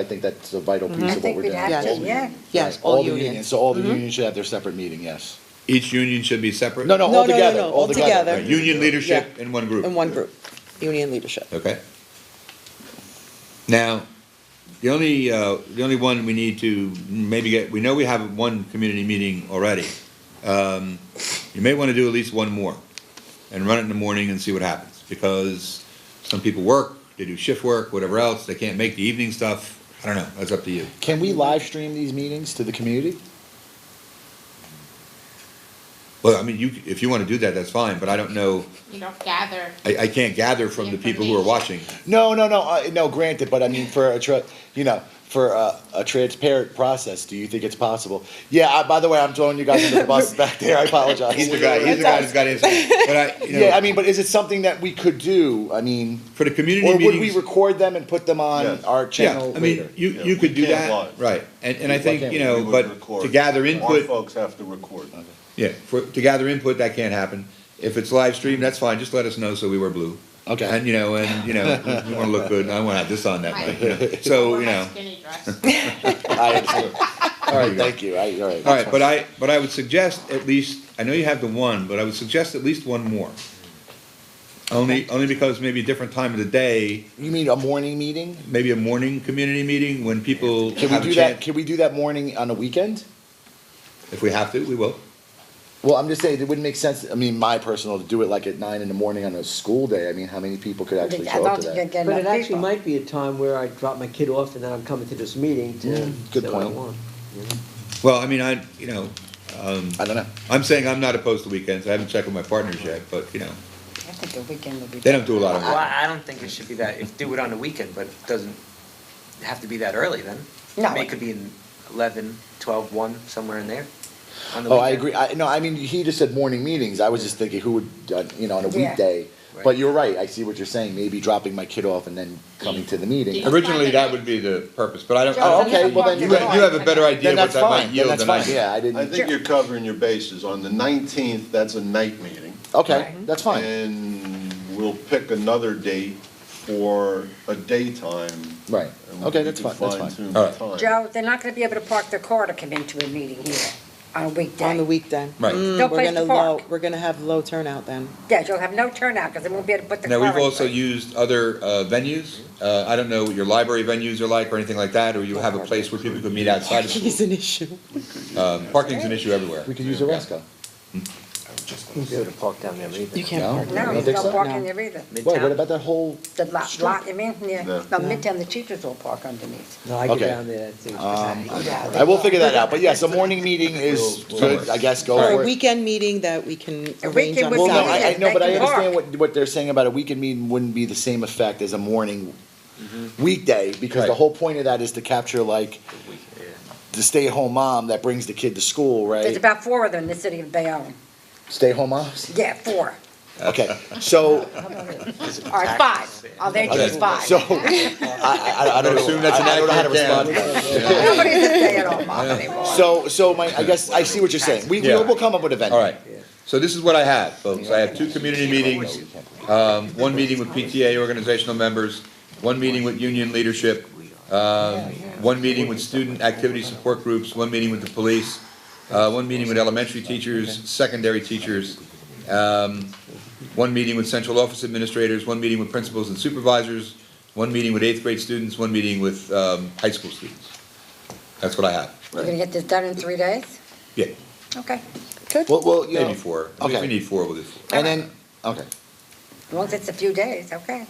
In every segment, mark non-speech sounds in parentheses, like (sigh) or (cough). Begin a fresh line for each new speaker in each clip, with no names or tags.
I think that's a vital piece of what we're doing.
have to,
Right,
yeah.
Yes, all
the
unions.
So all the unions should have their separate meeting, yes.
Each union should be separate?
No, no,
No,
all
no, no,
together,
no,
all together.
altogether.
Union leadership
Yeah.
in one group?
in one group, union leadership.
Okay. Now, the only, uh, the only one we need to maybe get, we know we have one community meeting already. Um, You may want to do at least one more and run it in the morning and see what happens. Because some people work, they do shift work, whatever else, they can't make the evening stuff. I don't know, that's up to you.
Can we live stream these meetings to the community?
Well, I mean, you, if you want to do that, that's fine, but I don't know,
you know, gather.
I, I can't gather from the people who are watching.
No, no, no, uh, no, granted, but I mean, for a, tra- you know, for a, a transparent process, do you think it's possible? Yeah, I, by the way, I'm throwing you guys under the (laughs) bus back there, I apologize.
(laughs) He's the guy, he's the guy that's got his, but I,
(laughs)
you know.
Yeah, I mean, but is it something that we could do? I mean,
For the community
or would we
meetings-
record them and put them on
Yes.
our channel
Yeah, I mean,
later?
you,
Yeah,
you
we
could do
can't
that,
live.
right, and, and I
Why
think,
can't
you
we?
We
know,
would
but to
record.
gather
Our
input,
folks have to record.
yeah, for, to gather input, that can't happen. If it's live streamed, that's fine, just let us know so we wear blue.
Okay.
And, you know, and, you know, we wanna look good, and I wanna have this on that night, you know. so,
Wear
you
my
know.
Skinny dress.
(laughs)
I understand. All
There
right,
you go.
thank you. I, all right.
All right, but I, but I would suggest at least, I know you have the one, but I would suggest at least one more. Only, only because maybe a different time of the day,
You mean a morning meeting?
maybe a morning community meeting when people
Can we
have a
do that?
chance.
Can we do that morning on a weekend?
If we have to, we will.
Well, I'm just saying it wouldn't make sense. I mean, my personal to do it like at nine in the morning on a school day. I mean, how many people could actually
I
show up
don't
to
think
that?
you get
But it
enough
actually
people.
might be a time where I drop my kid off and then I'm coming to this meeting to
good
say what I
point.
want.
Well, I mean, I, you know,
I don't know.
I'm saying I'm not opposed to weekends. I haven't checked with my partners yet, but you know,
I think a weekend would be.
they don't do a lot of
Well,
work.
I I don't think it should be that, if, do it on the weekend, but it doesn't have to be that early then.
No.
I mean, It could be in eleven, twelve, one, somewhere in there, on the
Oh, I
weekend.
agree. I, no, I mean, he just said morning meetings. I was just thinking who would, uh, you know, on a
Yeah.
weekday. But
Right.
you're right. I see what you're saying. Maybe dropping my kid off and then coming to the meeting.
Yeah.
Originally, that would be the purpose, but I don't, I
Oh,
don't.
okay, well, then
You
you're
have you have a better idea
Then
what
that's
that might
fine. Then
yield
that's
than I
fine.
do.
Yeah, I
I
didn't.
think you're covering your bases. On the nineteenth, that's a night meeting.
Okay, that's fine.
And we'll pick another date for a daytime.
Right.
and
Okay,
we
that's
can
fine. That's fine.
fine-tune
All
the
right.
time.
Joe, they're not gonna be able to park their car to come into a meeting here on a weekday.
On the weekday.
Right.
Mm,
No
we're
place
gonna
to park.
low- We're gonna have low turnout then.
Yeah, you'll have no turnout, because they won't be able to put the car
Now,
in.
we've also
front.
used other uh, venues. Uh, I don't know what your library venues are like or anything like that, or you have a place where people could meet outside of
Parking is
school.
an issue.
Um, Parking's an issue everywhere.
We could use a Resco.
You can go to park down there either.
You can't
No.
park.
I
No,
don't
there's
think
no
so.
parking
No.
there either.
Wait, what
Midtown?
about that whole?
The lot, lot, you mean, yeah,
No.
no, midtown, the teachers will park underneath.
No, I go
Okay.
down there, that's it.
I will figure that out, but yes, a morning meeting is good, I guess, go
Or
for
a
it.
weekend meeting that we can
A
arrange
weekend
on
would
Well, no, I, I,
Saturday.
no, but I
They can
understand
park.
what, what they're saying about a weekend meeting wouldn't be the same effect as a morning weekday, because the
Right.
whole point of that is to capture like Mm-hmm. the stay-at-home mom that brings the kid to school,
There's
right?
about four of them in the city of Bayonne.
Stay-at-home (laughs) moms?
Yeah, four.
Okay, so,
All right, five. Oh, they choose five. (laughs)
so, I, I, I don't know,
assume that's an
I don't know how to
accurate
respond to
count.
that. (laughs)
Nobody's a stay-at-home mom anymore.
So, so my, I guess, I see what you're saying, we,
Yeah.
we'll, we'll come up with a venue.
All right, so this is what I have, folks. I have two community meetings, um, one meeting with PTA organizational members, one meeting with union leadership, um, one meeting with student activity support groups, one meeting with the police, uh, one meeting with elementary teachers, secondary teachers, um, one meeting with central office administrators, one meeting with principals and supervisors, one meeting with eighth grade students, one meeting with, um, high school students. That's what I have.
You're gonna get this done in three days?
Yeah,
Okay,
Well, well, you know.
maybe four. If
Okay.
we need four, we'll do four.
And then, okay,
as long as it's a few days, okay.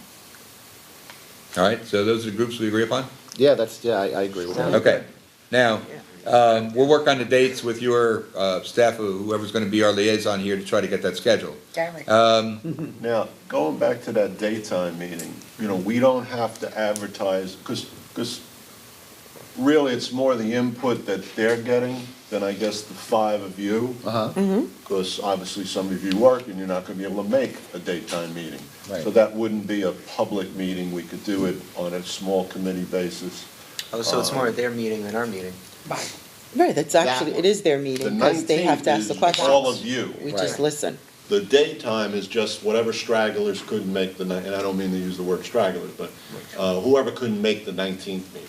All right, so those are the groups we agree upon?
yeah, that's, yeah, I, I agree with that.
Okay. Now, um, we'll work on the dates with your, uh, staff, or whoever's gonna be our liaison here to try to get that scheduled.
Gary.
Um,
Now, going back to that daytime meeting, you know, we don't have to advertise, because, because really, it's more the input that they're getting than I guess the five of you.
Uh-huh,
because obviously some of you work and you're not going to be able to make a daytime meeting.
Right.
So that wouldn't be a public meeting, we could do it on a small committee basis.
Oh, so it's more their meeting than our meeting.
Right, that's actually, it is their meeting,
The
because they have to ask the
19th is
questions.
all of you.
We just
Right.
listen.
The daytime is just whatever stragglers couldn't make the, ni- and I don't mean to use the word stragglers, but uh, whoever couldn't make the 19th meeting.